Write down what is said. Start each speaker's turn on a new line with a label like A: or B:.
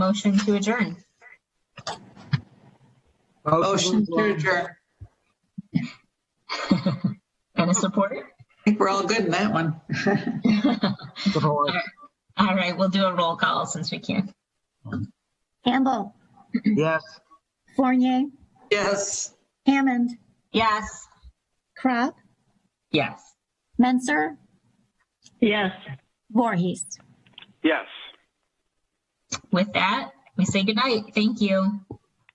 A: motion to adjourn?
B: Motion to adjourn. I
A: And a support?
B: think we're all good in that one.
A: All right, we'll do a roll call since we can.
C: Campbell,
D: Yes.
C: Fournier,
B: Yes.
C: Hammond,
A: Yes,
C: Crop,
A: yes.
C: Menser,
E: Yes.
C: Voorhees.
F: Yes.
A: With that, we say goodnight. Thank you.